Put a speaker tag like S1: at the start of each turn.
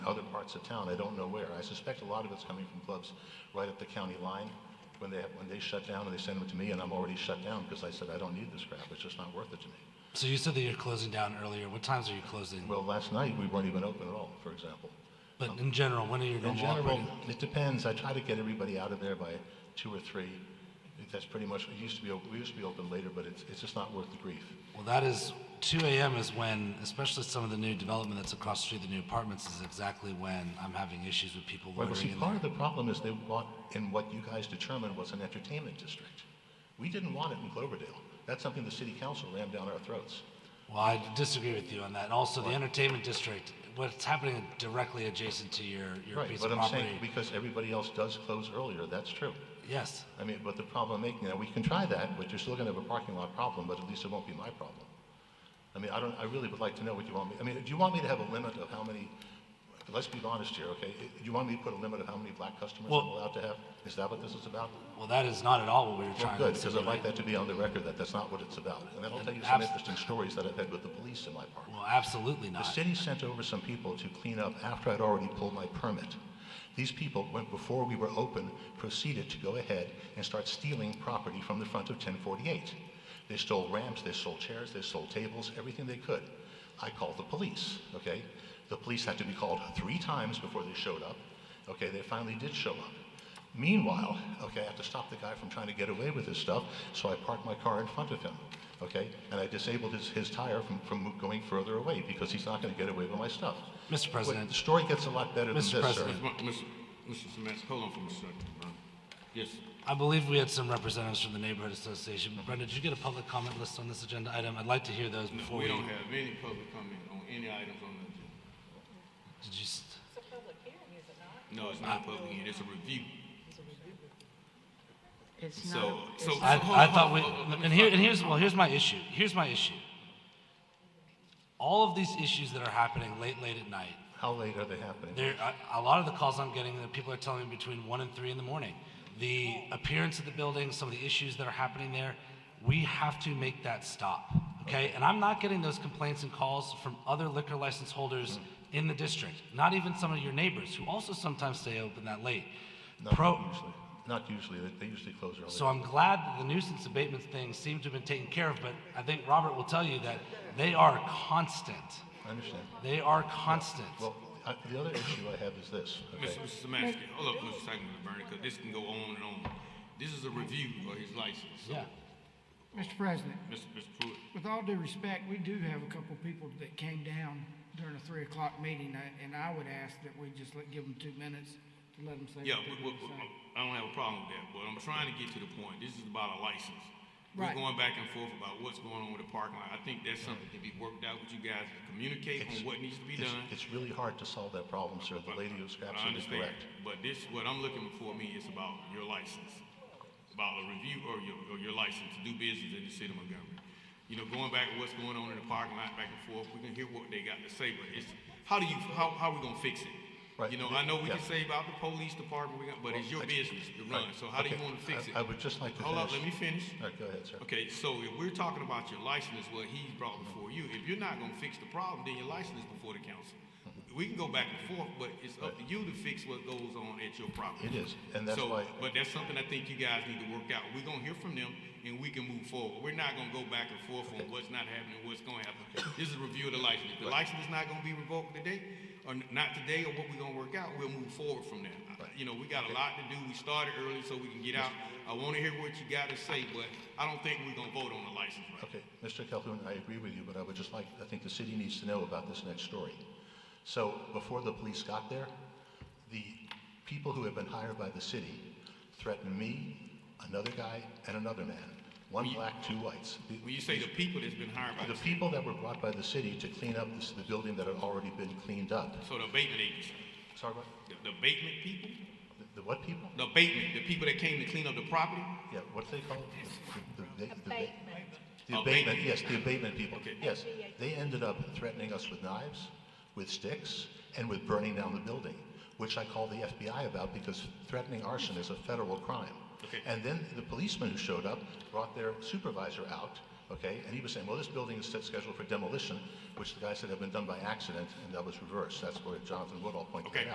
S1: other parts of town, I don't know where. I suspect a lot of it's coming from clubs right at the county line, when they, when they shut down and they send them to me, and I'm already shut down because I said, I don't need this crap, it's just not worth it to me.
S2: So you said that you're closing down earlier. What times are you closing?
S1: Well, last night, we weren't even open at all, for example.
S2: But in general, when are you
S1: In
S2: going to operate?
S1: general, it depends, I try to get everybody out of there by two or three. That's pretty much, it used to be, op- we used to be open later, but it's, it's just not worth the grief.
S2: Well, that is 2 a.m. is when, especially some of the new development that's across the street, the new apartments, is exactly when I'm having issues with people
S1: Well, see,
S2: loitering in
S1: part
S2: there.
S1: of the problem is they want, in what you guys determined was an entertainment district. We didn't want it in Cloverdale. That's something the city council rammed down our throats.
S2: Well, I disagree with you on that. And also, the entertainment district, what's happening directly adjacent to your, your
S1: Right,
S2: piece
S1: but
S2: of
S1: I'm
S2: property.
S1: saying, because everybody else does close earlier, that's true.
S2: Yes.
S1: I mean, but the problem making, now, we can try that, but you're still gonna have a parking lot problem, but at least it won't be my problem. I mean, I don't, I really would like to know what you want me, I mean, do you want me to have a limit of how many, let's be honest here, okay? Do you want me to put a limit of how many black customers I'm
S2: Well-
S1: allowed to have? Is that what this is about?
S2: Well, that is not at all what we were
S1: Well,
S2: trying
S1: good, uh,
S2: to
S1: because I'd like that
S2: insinuate.
S1: to be on the record, that that's not what it's about. And that'll tell you some
S2: abs-
S1: interesting stories that I've had with the police in my part.
S2: Well, absolutely
S1: The
S2: not.
S1: city sent over some people to clean up after I'd already pulled my permit. These people went before we were open, proceeded to go ahead and start stealing property from the front of 1048. They stole ramps, they stole chairs, they stole tables, everything they could. I called the police, okay? The police had to be called three times before they showed up. Okay, they finally did show up. Meanwhile, okay, I have to stop the guy from trying to get away with his stuff, so I parked my car in front of him, okay? And I disabled his, his tire from, from going further away because he's not going to get away with my stuff.
S2: Mr.
S1: Wait,
S2: President,
S1: the story gets a lot better than this,
S2: Mr.
S1: sir.
S2: President.
S3: Mr. Mr. Mr. Samansky, hold on for a second, bro. Yes,
S2: I believe we had some representatives from the neighborhood association. Brenda, did you get a public comment list on this agenda item? I'd like to hear those before
S3: we
S2: we.
S3: don't have any public comment on any items on the agenda.
S2: Did you? s-
S3: No, it's not a public hearing, it's a review.
S4: It's not,
S3: So, so.
S2: I,
S3: so hold
S2: I
S3: on,
S2: thought
S3: hold
S2: we,
S3: on, hold on,
S2: and
S3: let
S2: here,
S3: me
S2: and here's, well, here's my issue. Here's my issue. All of these issues that are happening late, late at night,
S1: How late are they happening?
S2: there, a, a lot of the calls I'm getting, that people are telling me between one and three in the morning. The appearance of the building, some of the issues that are happening there, we have to make that stop, okay? And I'm not getting those complaints and calls from other liquor license holders in the district, not even some of your neighbors who also sometimes stay open that late.
S1: Not
S2: Pro,
S1: usually. Not usually. They, they usually close early.
S2: so I'm glad that the nuisance abatement thing seems to have been taken care of, but I think Robert will tell you that they are constant.
S1: I understand.
S2: They are constant.
S1: Well, I, the other issue I have is this. Okay?
S3: Mr. Mr. Samansky, hold up for a second, Mr. Bernie, because this can go on and on. This is a review of his license. So,
S2: Yeah.
S5: Mr. President,
S3: Mr. Mr. Pruitt,
S5: with all due respect, we do have a couple people that came down during a three o'clock meeting, I- and I would ask that we just let, give them two minutes to let them say.
S3: yeah,
S5: what they
S3: we- we-
S5: want to
S3: we-
S5: say.
S3: I don't have a problem with that, but I'm trying to get to the point. This is about a license. We're
S5: Right.
S3: going back and forth about what's going on with the parking lot. I think that's something to be worked out with you guys, communicate on what needs to be
S1: It's,
S3: done.
S1: it's really hard to solve that problem, sir. The lady who's
S3: I
S1: absolutely
S3: understand,
S1: correct.
S3: but this, what I'm looking for me is about your license, about a review or your, or your license to do business in the city of Montgomery. You know, going back to what's going on in the parking lot, back and forth, we can hear what they got to say, but it's, how do you, how, how we gonna fix it?
S1: Right,
S3: You know,
S1: the-
S3: I know we can
S1: yeah.
S3: say about the police department, we got, but it's your business to run, so how do you
S1: Okay.
S3: wanna fix it?
S1: I- I would just like to
S3: Hold up, let
S1: finish.
S3: me finish.
S1: All right, go ahead, sir.
S3: Okay, so if we're talking about your license, what he brought before you, if you're not gonna fix the problem, then your license is before the council. We can go back and forth, but it's up to you to fix what goes on at your
S1: It
S3: property.
S1: is, and that's
S3: So,
S1: why-
S3: But that's something I think you guys need to work out. We're gonna hear from them and we can move forward. We're not gonna go back and forth on what's not happening, what's gonna happen. This is a review of the license. If the license is not gonna be revoked today, or n- not today, or what we're gonna work out, we'll move forward from there. I- You know, we got a lot to do. We started early so we can get out. I wanna hear what you gotta say, but I don't think we're gonna vote on the license right now.
S1: Okay, Mr. Calhoun, I agree with you, but I would just like, I think the city needs to know about this next story. So before the police got there, the people who had been hired by the city threatened me, another guy, and another man. One black, two whites. The-
S3: When you say the people that's been hired by
S1: The
S3: the city,
S1: people that were brought by the city to clean up this, the building that had already been cleaned up.
S3: so the abatement agency,
S1: Sorry, what?
S3: the the abatement people,
S1: The- The what people?
S3: the abatement, the people that came to clean up the property,
S1: Yeah, what do they call it? The- the- the- the- The
S3: Oh, Abatement.
S1: abatement, yes, the abatement people,
S3: Okay.
S1: yes. They ended up threatening us with knives, with sticks, and with burning down the building, which I called the FBI about because threatening arson is a federal crime.
S3: Okay.
S1: And then the policemen who showed up brought their supervisor out, okay? And he was saying, well, this building is set scheduled for demolition, which the guy said had been done by accident, and that was reversed. That's where Jonathan Woodall pointed that
S3: Okay.
S1: out.